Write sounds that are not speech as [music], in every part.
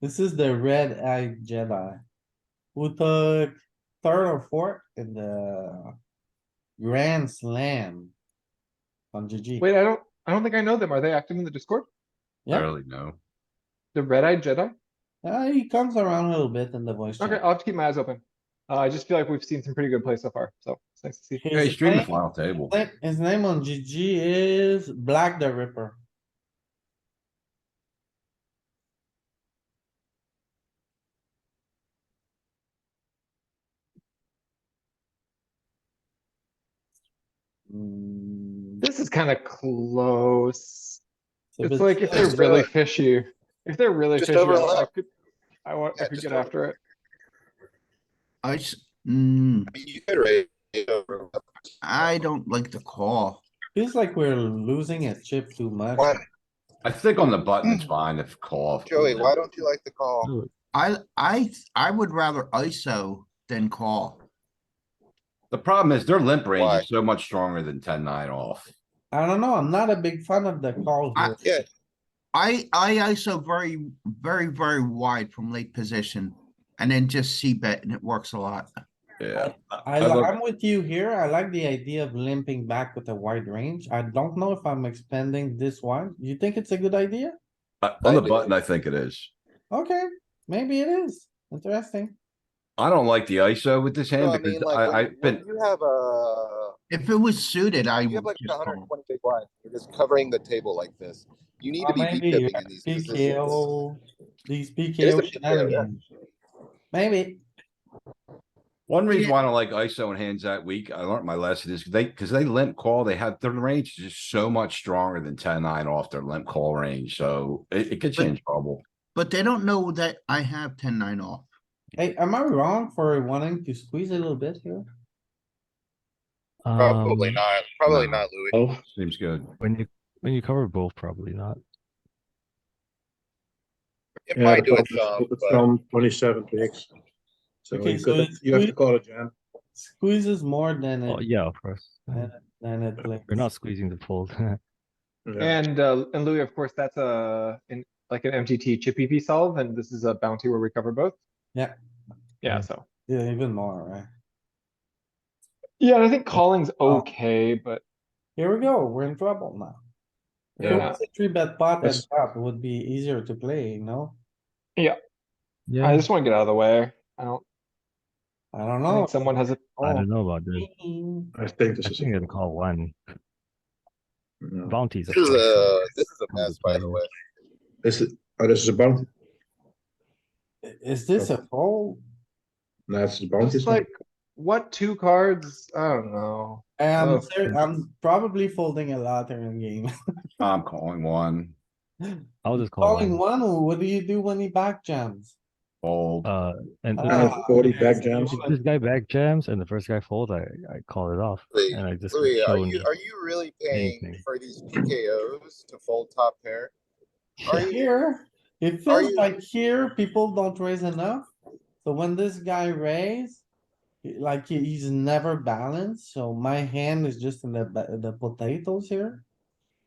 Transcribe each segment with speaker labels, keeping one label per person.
Speaker 1: This is the red eye Jedi. Who took third or fourth in the grand slam. On GG.
Speaker 2: Wait, I don't, I don't think I know them. Are they active in the Discord?
Speaker 1: Yeah.
Speaker 3: Barely know.
Speaker 2: The Red Eyed Jedi?
Speaker 1: Uh, he comes around a little bit in the voice
Speaker 2: Okay,
Speaker 1: chat.
Speaker 2: I'll have to keep my eyes open. Uh, I just feel like we've seen some pretty good plays so far, so it's nice to see.
Speaker 3: Yeah, he's
Speaker 1: His
Speaker 3: streaming
Speaker 1: name-
Speaker 3: final table.
Speaker 1: Like, His name on GG is Black the Ripper. Mm,
Speaker 2: This is kinda close.
Speaker 1: it's a
Speaker 2: It's
Speaker 1: bit-
Speaker 2: like if they're
Speaker 4: Just,
Speaker 2: really
Speaker 4: uh,
Speaker 2: fishy, if they're really
Speaker 4: just
Speaker 2: fishy, I- I
Speaker 4: overlap.
Speaker 2: could, I want, I
Speaker 4: Yeah,
Speaker 2: could
Speaker 4: just
Speaker 2: get after it.
Speaker 5: I, s- mm,
Speaker 4: I mean, you could raise. it over.
Speaker 5: I don't like the call.
Speaker 1: Feels like we're losing a chip too much.
Speaker 4: Why,
Speaker 3: I think on the button, it's fine if call.
Speaker 4: Mm. Joey, why don't you like the call?
Speaker 5: I, I, I would rather ISO than call.
Speaker 3: The problem is their limp
Speaker 4: Why?
Speaker 3: range is so much stronger than ten nine off.
Speaker 1: I don't know, I'm not a big fan of the call
Speaker 5: I-
Speaker 1: here.
Speaker 4: Yeah,
Speaker 5: I, I ISO very, very, very wide from late position and then just C bet and it works a lot.
Speaker 3: Yeah,
Speaker 1: I,
Speaker 3: I
Speaker 1: li-
Speaker 3: look-
Speaker 1: I'm with you here. I like the idea of limping back with a wide range. I don't know if I'm expanding this one. You think it's a good idea?
Speaker 3: Uh, on the
Speaker 4: I do.
Speaker 3: button, I think it is.
Speaker 1: Okay, maybe it is. Interesting.
Speaker 3: I don't like the ISO with this
Speaker 4: no,
Speaker 3: hand
Speaker 4: I
Speaker 3: because
Speaker 4: mean, like,
Speaker 3: I,
Speaker 4: when-
Speaker 3: I've
Speaker 4: when
Speaker 3: been,
Speaker 4: you have a,
Speaker 5: If it was suited, I
Speaker 4: you have
Speaker 5: would
Speaker 4: like
Speaker 5: just
Speaker 4: a hundred and
Speaker 5: call.
Speaker 4: twenty big blind, you're just covering the table like this. You need
Speaker 1: Or
Speaker 4: to be
Speaker 1: maybe
Speaker 4: deep
Speaker 1: you're
Speaker 4: dipping in these positions.
Speaker 1: PKO, these
Speaker 4: is a
Speaker 1: PKO
Speaker 4: PKO, yeah.
Speaker 1: shenanigans. Maybe.
Speaker 3: one reason why I don't like ISO and hands that weak, I learned my lesson is they, because they limp call, they have, their range is just so much stronger than ten nine off their limp call range, so it, it could
Speaker 5: But-
Speaker 3: change trouble.
Speaker 5: But they don't know that I have ten nine off.
Speaker 1: Hey, am I wrong for wanting to squeeze a little bit here?
Speaker 4: Probably
Speaker 6: Um,
Speaker 4: not, probably
Speaker 3: no.
Speaker 4: not, Louis.
Speaker 6: Oh,
Speaker 3: Seems good.
Speaker 6: when you when you cover both, probably not.
Speaker 4: It
Speaker 7: Yeah,
Speaker 4: might do it
Speaker 7: the problem
Speaker 4: some,
Speaker 7: is
Speaker 4: but.
Speaker 7: From twenty-seven bigs. So
Speaker 1: Okay,
Speaker 7: you
Speaker 1: so
Speaker 7: could,
Speaker 1: it's
Speaker 7: you have
Speaker 1: we-
Speaker 7: to call a jam.
Speaker 1: Squeezes more than
Speaker 6: Oh
Speaker 1: it,
Speaker 6: yeah, of course.
Speaker 1: Yeah, than it plays.
Speaker 6: We're not squeezing the [laughs] fold.
Speaker 7: Yeah.
Speaker 2: And, uh, and Louis, of course, that's a, in, like an MTT chippy V solve, and this is a bounty where we cover both.
Speaker 1: Yeah.
Speaker 2: Yeah,
Speaker 6: Yeah.
Speaker 2: so.
Speaker 1: Yeah, even more, right?
Speaker 2: Yeah, and I think calling's
Speaker 1: Oh.
Speaker 2: okay, but
Speaker 1: Here we go, we're in trouble now. If it
Speaker 2: Yeah.
Speaker 1: was a three bet pot and
Speaker 7: That's-
Speaker 1: flop, it would be easier to play, you know?
Speaker 6: yeah,
Speaker 2: I
Speaker 6: I,
Speaker 2: just wanna get out of the way. I don't,
Speaker 1: I don't
Speaker 2: I
Speaker 1: know.
Speaker 2: think someone has a,
Speaker 1: Oh.
Speaker 6: don't know about this.
Speaker 1: Mm,
Speaker 7: I think this
Speaker 6: I
Speaker 7: is.
Speaker 6: think I'm gonna call one
Speaker 7: yeah.
Speaker 6: bounties. of
Speaker 4: This is
Speaker 6: course.
Speaker 4: a, this is a mess, by the way.
Speaker 7: This is, oh, this is a bounty.
Speaker 1: i- Is this a fold?
Speaker 7: No, it's a bounty.
Speaker 2: just
Speaker 7: isn't it?
Speaker 2: like, what two cards? I don't know.
Speaker 1: Um,
Speaker 2: Oh.
Speaker 1: ser- I'm probably folding a lot in the game.
Speaker 3: I'm calling one,
Speaker 6: I'll just call
Speaker 1: Calling
Speaker 6: one.
Speaker 1: one, what do you do when he back jams?
Speaker 3: fold.
Speaker 6: Uh, and
Speaker 1: Ah,
Speaker 6: if
Speaker 7: Uh,
Speaker 6: this-
Speaker 7: forty
Speaker 1: there's
Speaker 7: back jams.
Speaker 6: if this guy back jams and the first guy folds, I I call it off
Speaker 4: Louis,
Speaker 6: and I just get
Speaker 4: Louis, are
Speaker 6: shown
Speaker 4: you, are you really paying
Speaker 6: anything.
Speaker 4: for these PKOs to fold top pair?
Speaker 1: [laughs]
Speaker 4: Are you?
Speaker 1: Here, it
Speaker 4: Are
Speaker 1: feels
Speaker 4: you-
Speaker 1: like here, people don't raise enough. So when this guy raise, he- like he- he's never balanced, so my hand is just in the, ba- the potatoes here.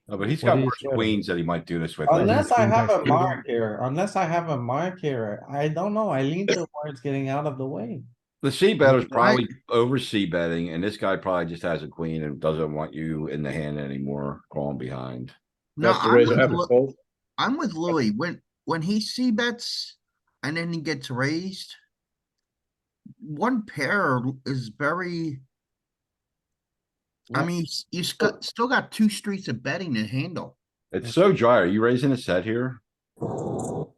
Speaker 3: No, Oh, But he's
Speaker 6: What
Speaker 3: got
Speaker 6: do you
Speaker 3: worse
Speaker 6: think?
Speaker 3: queens that he might do this with.
Speaker 6: Oh,
Speaker 3: later.
Speaker 1: Unless I
Speaker 6: Queen
Speaker 1: have
Speaker 6: jack
Speaker 1: a
Speaker 6: suited.
Speaker 1: mark here, unless I have a mark here, I don't know, I lean towards getting out of the way.
Speaker 3: The C better's
Speaker 5: Right.
Speaker 3: probably over C betting, and this guy probably just has a queen and doesn't want you in the hand anymore, calling behind.
Speaker 7: You
Speaker 5: No,
Speaker 7: have to
Speaker 5: I'm
Speaker 7: raise
Speaker 5: with,
Speaker 7: every
Speaker 5: Lou-
Speaker 7: fold.
Speaker 5: I'm with Louis. When, when he C bets and then he gets raised. One pair is very. I
Speaker 1: Yeah.
Speaker 5: mean, s- you still, still got two streets of betting to handle.
Speaker 3: It's so dry. Are you raising a set here? Or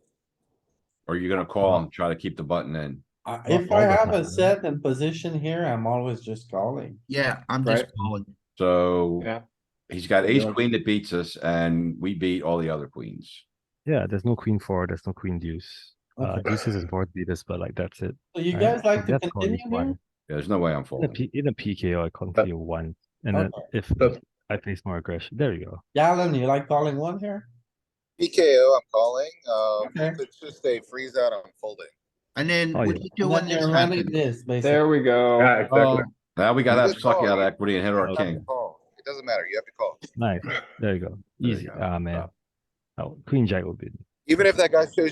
Speaker 3: are you gonna call and try to keep the button in?
Speaker 1: I-
Speaker 6: Not
Speaker 1: If
Speaker 6: all
Speaker 1: I
Speaker 6: the
Speaker 1: have a
Speaker 6: time.
Speaker 1: set and position here, I'm always just calling.
Speaker 5: Yeah, I'm just
Speaker 2: Right.
Speaker 5: calling.
Speaker 3: So.
Speaker 2: Yeah.
Speaker 3: He's got ace
Speaker 7: Yeah.
Speaker 3: queen that beats us and we beat all the other queens.
Speaker 6: Yeah, there's no queen four. There's no queen deuce. Uh,
Speaker 1: Okay.
Speaker 6: deuces is board beaters, but like that's it.
Speaker 1: So you
Speaker 6: right?
Speaker 1: guys
Speaker 6: So
Speaker 1: like to
Speaker 6: that's calling
Speaker 1: continue here?
Speaker 6: one.
Speaker 3: There's no way I'm
Speaker 6: In a,
Speaker 3: folding.
Speaker 6: P- in a PKO, I continue one, and then
Speaker 1: Okay.
Speaker 6: if
Speaker 7: But-
Speaker 6: I face more aggression, there you go.
Speaker 1: Galen, you like calling one here?
Speaker 4: PKO, I'm calling, um,
Speaker 1: Okay.
Speaker 4: it's just a freeze out on folding.
Speaker 5: And then
Speaker 6: Oh,
Speaker 5: what
Speaker 6: yeah.
Speaker 5: do you do
Speaker 1: And
Speaker 5: when
Speaker 1: Then
Speaker 5: this
Speaker 1: you're running
Speaker 5: happens?
Speaker 1: this, basically.
Speaker 2: There we go.
Speaker 7: Yeah, exactly.
Speaker 3: Oh, Now we gotta have
Speaker 4: Good
Speaker 3: sucky
Speaker 4: call.
Speaker 3: out of equity and hit our
Speaker 4: You have to
Speaker 3: king.
Speaker 4: call. It doesn't matter, you have to call.
Speaker 6: Nice. There you go.
Speaker 3: There you
Speaker 6: Easy.
Speaker 3: go.
Speaker 6: Ah man. Oh, queen jack would be.
Speaker 4: Even if that guy shows you